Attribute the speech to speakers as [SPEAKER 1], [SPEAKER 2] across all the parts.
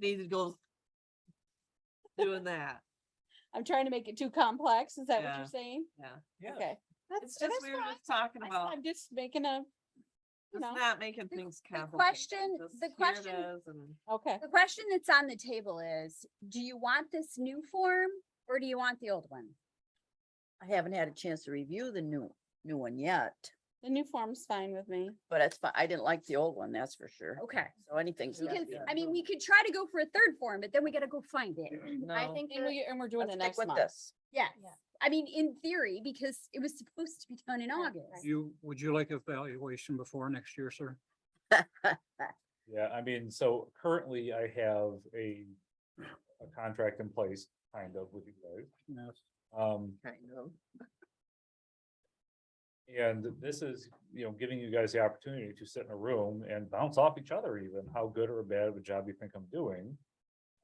[SPEAKER 1] need to go doing that.
[SPEAKER 2] I'm trying to make it too complex. Is that what
[SPEAKER 1] Yeah.
[SPEAKER 2] you're saying?
[SPEAKER 3] Yeah.
[SPEAKER 2] Okay.
[SPEAKER 1] It's
[SPEAKER 2] That's,
[SPEAKER 1] just,
[SPEAKER 2] that's
[SPEAKER 1] we were
[SPEAKER 2] fine.
[SPEAKER 1] just talking
[SPEAKER 2] I-
[SPEAKER 1] about,
[SPEAKER 2] I'm just making a, you
[SPEAKER 1] it's
[SPEAKER 2] know,
[SPEAKER 1] not making
[SPEAKER 4] The-
[SPEAKER 1] things
[SPEAKER 4] the
[SPEAKER 1] complicated.
[SPEAKER 4] question-
[SPEAKER 1] just
[SPEAKER 4] the
[SPEAKER 1] here it
[SPEAKER 4] question-
[SPEAKER 1] is and-
[SPEAKER 2] okay.
[SPEAKER 4] The question that's on the table is, do you want this new form or do you want the old one?
[SPEAKER 5] I haven't had a chance to review the new, new one yet,
[SPEAKER 2] The new form's fine with me.
[SPEAKER 5] but it's, fi- I didn't like the old one, that's for sure.
[SPEAKER 4] Okay.
[SPEAKER 5] So anything's.
[SPEAKER 4] Because,
[SPEAKER 5] left, yeah.
[SPEAKER 4] I mean, we could try to go for a third form, but then we gotta go find it. I
[SPEAKER 5] No.
[SPEAKER 4] think,
[SPEAKER 2] And we, and we're doing
[SPEAKER 5] Let's
[SPEAKER 2] it
[SPEAKER 5] stick
[SPEAKER 2] next
[SPEAKER 5] with
[SPEAKER 2] month.
[SPEAKER 5] this.
[SPEAKER 4] yeah, I mean, in theory, because it was supposed to be done in
[SPEAKER 2] Right,
[SPEAKER 4] August.
[SPEAKER 6] You, would you like evaluation before next year, sir?
[SPEAKER 3] Yeah, I mean, so currently I have a, a contract in place, kind of with you guys.
[SPEAKER 6] Yes.
[SPEAKER 3] Um,
[SPEAKER 5] Kind of.
[SPEAKER 3] and this is, you know, giving you guys the opportunity to sit in a room and bounce off each other even, how good or bad of a job you think I'm doing.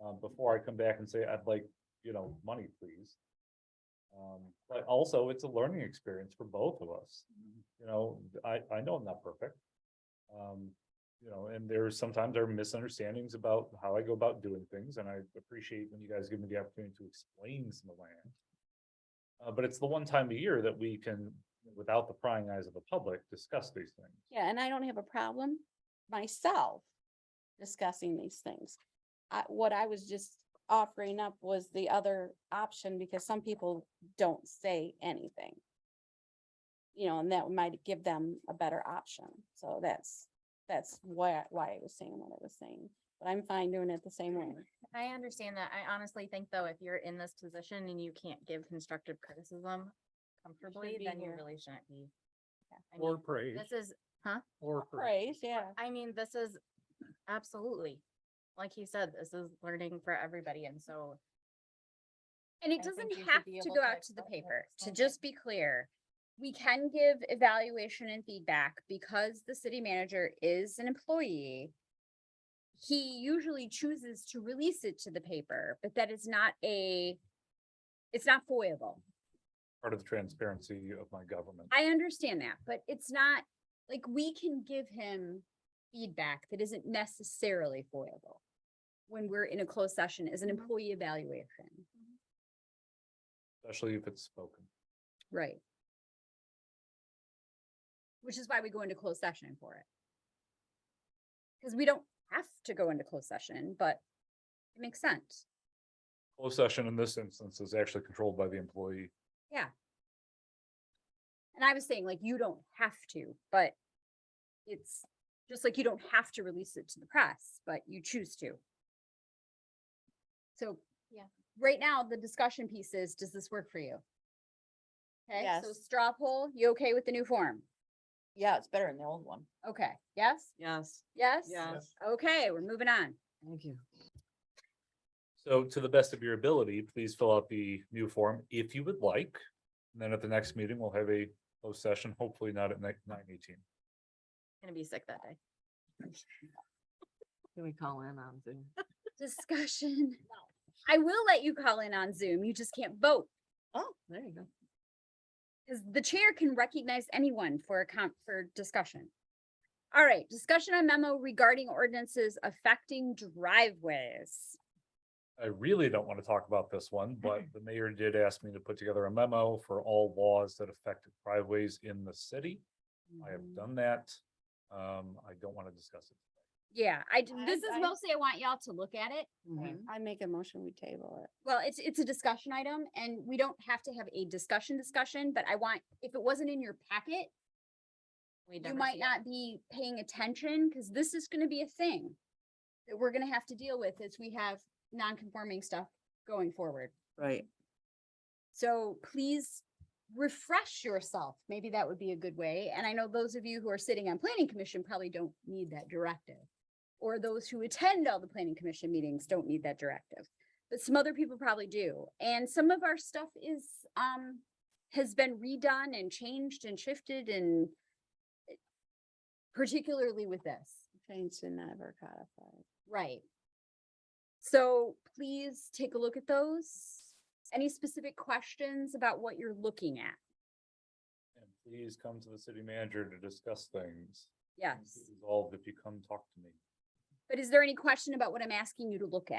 [SPEAKER 3] Um, before I come back and say, I'd like, you know, money, please. Um, but also it's a learning experience for both of us. You know, I, I know I'm not perfect. Um, you know, and there's sometimes there are misunderstandings about how I go about doing things, and I appreciate when you guys give me the opportunity to explain some of my. actions. Uh, but it's the one time a year that we can, without the prying eyes of the public, discuss these things.
[SPEAKER 2] Yeah, and I don't have a problem myself discussing these things. I, what I was just offering up was the other option because some people don't say anything. You know, and that might give them a better option. So that's, that's why, why I was saying what I was saying. But I'm fine doing it the same way.
[SPEAKER 7] I understand that. I honestly think though, if you're in this position and you can't give constructive criticism comfortably,
[SPEAKER 2] be
[SPEAKER 7] then you
[SPEAKER 2] here.
[SPEAKER 7] really shouldn't be. I
[SPEAKER 6] Or
[SPEAKER 7] mean,
[SPEAKER 6] praise,
[SPEAKER 7] This is,
[SPEAKER 6] or praise.
[SPEAKER 2] Praise, yeah.
[SPEAKER 7] I mean, this is absolutely, like he said, this is learning for everybody and so.
[SPEAKER 4] And it
[SPEAKER 7] I think
[SPEAKER 4] doesn't
[SPEAKER 7] you should
[SPEAKER 4] have
[SPEAKER 7] be
[SPEAKER 4] to
[SPEAKER 7] able
[SPEAKER 4] go
[SPEAKER 7] to
[SPEAKER 4] out to the
[SPEAKER 7] express that
[SPEAKER 4] paper, to
[SPEAKER 7] something.
[SPEAKER 4] just be clear. We can give evaluation and feedback because the city manager is an employee. He usually chooses to release it to the paper, but that is not a, it's not foiable.
[SPEAKER 3] Part of the transparency of my government.
[SPEAKER 4] I understand that, but it's not, like, we can give him feedback that isn't necessarily foible when we're in a closed session as an
[SPEAKER 7] Mm-hmm.
[SPEAKER 4] employee evaluation,
[SPEAKER 3] Especially if it's spoken.
[SPEAKER 4] right? Which is why we go into closed session for it. Because we don't have to go into closed session, but it makes sense.
[SPEAKER 3] Closed session in this instance is actually controlled by the employee.
[SPEAKER 4] And I was saying, like, you don't have to, but it's just like you don't have to release it to the press, but you choose to. So.
[SPEAKER 7] Yeah.
[SPEAKER 4] Right now, the discussion piece is, does this work for you? Okay, so
[SPEAKER 2] Yes.
[SPEAKER 4] straw poll, you okay with the new form?
[SPEAKER 5] Yeah, it's better than the old one.
[SPEAKER 4] Okay, yes,
[SPEAKER 1] Yes,
[SPEAKER 4] yes?
[SPEAKER 1] yes,
[SPEAKER 4] Okay, we're moving on.
[SPEAKER 1] thank you.
[SPEAKER 3] So to the best of your ability, please fill out the new form if you would like. And then at the next meeting, we'll have a closed session, hopefully not at nine eighteen.
[SPEAKER 7] Gonna be sick that day.
[SPEAKER 1] Can we call in on Zoom?
[SPEAKER 4] Discussion. I will let you call in on Zoom, you just can't vote,
[SPEAKER 1] Oh, there you go.
[SPEAKER 4] because the chair can recognize anyone for a comp, for discussion. All right, discussion on memo regarding ordinances affecting driveways.
[SPEAKER 3] I really don't want to talk about this one, but the mayor did ask me to put together a memo for all laws that affect driveways in the city. I have done that. Um, I don't want to discuss it.
[SPEAKER 4] Yeah, I, d-
[SPEAKER 2] I-
[SPEAKER 4] this is
[SPEAKER 2] I-
[SPEAKER 4] mostly I want y'all to look at it.
[SPEAKER 1] Mhm.
[SPEAKER 2] I make a motion, we table it.
[SPEAKER 4] Well, it's, it's a discussion item and we don't have to have a discussion discussion, but I want, if it wasn't in your packet,
[SPEAKER 7] We'd
[SPEAKER 4] you
[SPEAKER 7] never
[SPEAKER 4] might
[SPEAKER 7] see it.
[SPEAKER 4] not be paying attention because this is gonna be a thing that we're gonna have to deal with as we have non-conforming stuff going forward.
[SPEAKER 5] Right.
[SPEAKER 4] So please refresh yourself. Maybe that would be a good way. And I know those of you who are sitting on planning commission probably don't need that directive. Or those who attend all the planning commission meetings don't need that directive, but some other people probably do. And some of our stuff is, um, has been redone and changed and shifted and particularly with this.
[SPEAKER 2] Changed and never codified.
[SPEAKER 4] Right. So please take a look at those. Any specific questions about what you're looking at?
[SPEAKER 3] And please come to the city manager to discuss things.
[SPEAKER 4] Yes,
[SPEAKER 3] Mm-hmm. Things get Resolved if you come talk to me.
[SPEAKER 4] But is there any question about what I'm asking you to look at?